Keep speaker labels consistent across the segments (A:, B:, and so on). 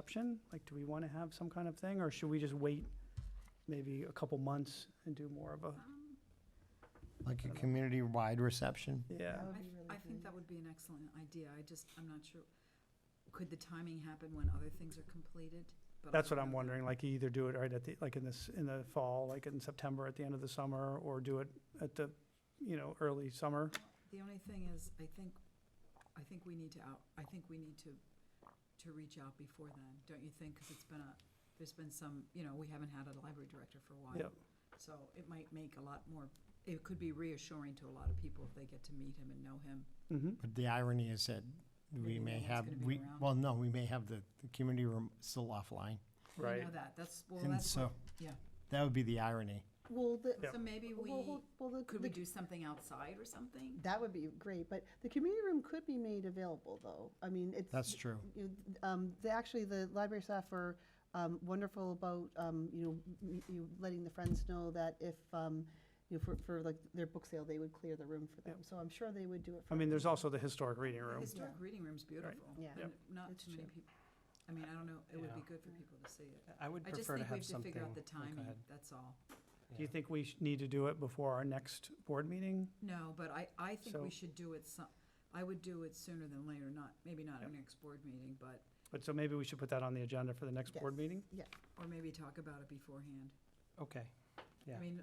A: option? Like, do we want to have some kind of thing, or should we just wait maybe a couple months and do more of a,
B: Um,
C: Like
A: I
C: a
A: don't know.
C: community-wide reception?
A: yeah?
B: I,
D: would be
B: th-
D: really
B: I think
D: good.
B: that would be an excellent idea, I just, I'm not sure, could the timing happen when other things are completed? But I
A: That's
B: don't
A: what I'm
B: know.
A: wondering, like, you either do it right at the, like, in this, in the fall, like in September, at the end of the summer, or do it at the, you know, early summer.
B: The only thing is, I think, I think we need to out, I think we need to, to reach out before then, don't you think? Because it's been a, there's been some, you know, we haven't had a library director for a while.
A: Yep.
B: So it might make a lot more, it could be reassuring to a lot of people if they get to meet him and know him.
A: Mm-hmm.
C: But the irony is that
B: Maybe
C: we
B: no
C: may
B: one's
C: have,
B: gonna be
C: we,
B: around.
C: well, no, we may have the, the community room still offline.
B: We
A: Right.
B: know that, that's, well,
C: And
B: that's,
C: so,
B: what- yeah.
C: that would be the irony.
D: Well, the,
A: Yep.
B: So maybe we,
D: well, hold- well, the-
B: could
D: the
B: we do something outside or something?
D: That would be great, but the community room could be made available, though. I mean, it's.
C: That's true.
D: you know, Um, the, actually, the library staff are, um, wonderful about, um, you know, m- you, letting the friends know that if, um, you know, for, for like their book sale, they would clear the room for them. So I'm sure they would do it for.
A: I mean, there's
D: everyone.
A: also the historic reading
B: The
A: room.
B: Historic reading room's beautiful.
D: Yeah.
B: and Not
D: It's
B: too many
D: true.
B: people, I mean, I don't know, it would be
E: Yeah.
B: good for people to see it.
E: I would
B: I just
E: prefer to
B: think we have
E: have
B: to
E: something.
B: figure out the
E: oh, go
B: timing,
E: ahead.
B: that's all.
A: Do you
E: Yeah.
A: think we sh- need to do it before our next board meeting?
B: No, but I, I think we
A: So-
B: should do it some, I would do it sooner than later, not, maybe not our next board meeting, but,
A: But so maybe we should put that on the agenda for the next board
D: Yes.
A: meeting?
B: or maybe talk about it beforehand.
E: Okay,
B: I
E: Yeah.
B: mean,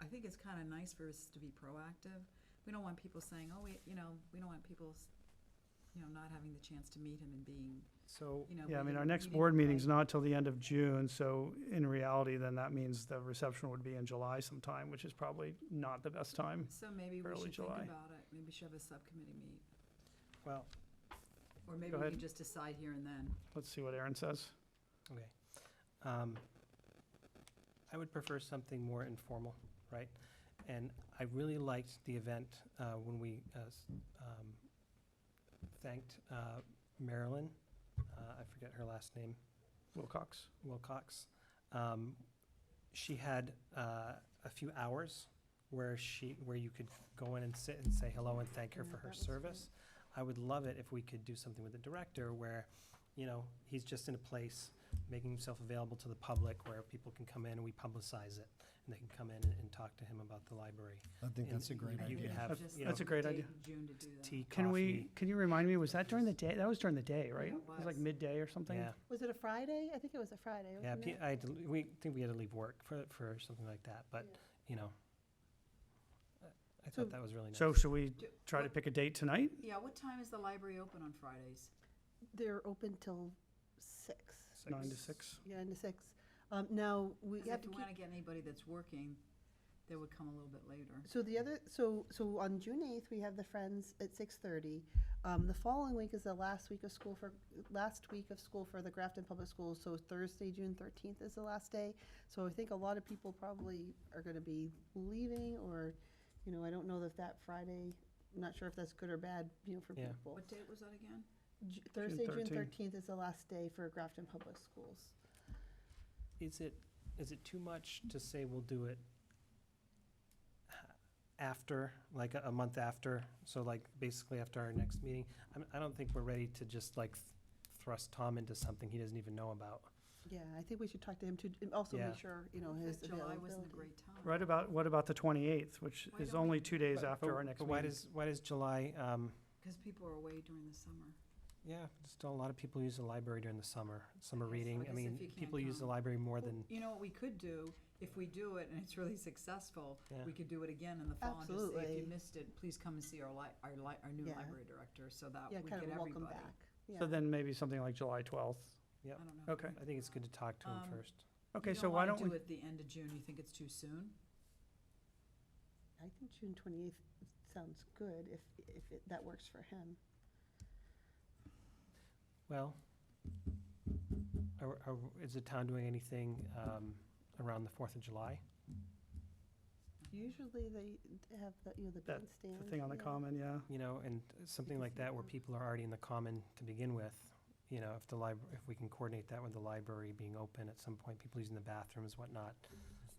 B: I think it's kind of nice for us to be proactive. We don't want people saying, oh, we, you know, we don't want people, s- you know, not having the chance to meet him and being,
E: so,
B: you know.
A: Yeah, I mean,
B: meeting-
A: our next
B: meeting
A: board
B: by-
A: meeting's not till the end of June, so in reality, then that means the reception would be in July sometime, which is probably not the best time.
B: So maybe we
A: early
B: should think
A: July.
B: about it, maybe we should have a subcommittee meet,
E: well,
B: or maybe
A: Go
B: we
A: ahead.
B: can just decide here and then.
A: Let's see what Aaron says.
E: okay. Um, I would prefer something more informal, right? And I really liked the event uh, when we uh, s- um, thanked uh, Marilyn, uh, I forget her last name,
A: Wilcox?
E: Wilcox. Um, she had uh, a few hours where she where you could go in and sit and say hello and thank her
D: Yeah,
E: for her
D: that was great.
E: service. I would love it if we could do something with the director where, you know, he's just in a place making himself available to the public where people can come in and we publicize it and they can come in and, and talk to him about the library.
C: I think
E: And
C: that's a great
B: you
E: You could
C: idea.
E: have
B: Just
E: you know,
A: That's a great
B: date
A: idea.
B: in June to do that.
E: tea,
A: Can we,
E: coffee.
A: can you remind me, was that during the day? That was during the day, right?
B: it
A: It was like
B: was.
A: midday or something?
E: Yeah,
D: Was it a Friday? I think it was a Friday,
E: yeah.
D: wasn't
E: P-
A: uh,
D: it?
E: I had to, l- we think we had to leave work for for something like that, but you know, I- I
D: So-
E: thought that was really nice.
A: So should we
B: Do-
A: try to
B: what-
A: pick a date tonight?
B: Yeah, what time is the library open on Fridays?
D: They're open till six,
A: Nine to six?
D: yeah, into six. Um, now, we
B: 'Cause
D: have
B: if
D: to
B: you
D: keep.
B: want to get anybody that's working, they would come a little bit later.
D: So the other, so, so on June eighth, we have the Friends at six thirty. Um, the following week is the last week of school for, last week of school for the Grafton Public Schools, so Thursday, June thirteenth is the last day. So I think a lot of people probably are gonna be leaving, or, you know, I don't know if that Friday, I'm not sure if that's good or bad, you know, for
E: Yeah.
D: people.
B: What date was that again?
D: Ju- Thursday, June
A: 13th.
D: thirteenth is the last day for Grafton Public Schools.
E: Is it, is it too much to say we'll do it h- after, like a, a month after? So like basically after our next meeting? I'm, I don't think we're ready to just like th- thrust Tom into something he doesn't even know about.
D: Yeah, I think we should talk to him to, and also
E: Yeah.
D: make sure, you know, his
B: That July wasn't a
D: availability.
B: great time.
A: Right about, what about the 28th, which
B: Why
A: is
B: don't we-
A: only two days
E: But-
A: after
E: but-
A: our next
E: But why
A: meeting?
E: does, why does July, um,
B: Because people are away during the summer.
E: yeah, still a lot of people use the library during the summer, summer
B: guess- I
E: reading. I
B: guess if you
E: mean,
B: can't
E: people use the
B: come.
E: library more
B: Well,
E: than,
B: You know what we could do, if we do it and it's really successful,
E: yeah.
B: we could do it again in the fall and just say, if you
D: Absolutely.
B: missed it, please come and see our li, our li, our new
D: Yeah.
B: library director, so that
D: Yeah,
B: we get
D: kind of
B: everybody.
D: welcome back. Yeah.
A: So then maybe something like July 12th?
B: I don't know. if
A: Okay.
B: we-
E: I think it's good to talk to him
B: Um,
E: first.
A: Okay, so why don't
B: You
A: we,
B: don't want to do it the end of June, you think it's too soon?
D: I think June twenty-eighth sounds good, if, if it- that works for him.
E: Well, are, are, is the town doing anything, um, around the Fourth of July?
D: Usually they have the, you know, the
A: That-
D: bandstand.
A: the thing on the
D: yeah.
A: common, yeah?
E: You know, and something like that where people are already in the common to begin with, you know, if the library, if we can coordinate that with the library being open at some point, people using the bathrooms, whatnot.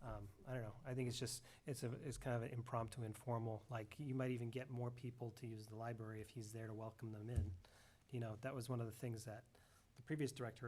E: Um, I don't know, I think it's just, it's a, it's kind of an impromptu, informal, like, you might even get more people to use the library if he's there to welcome them in. You know, that was one of the things that the previous director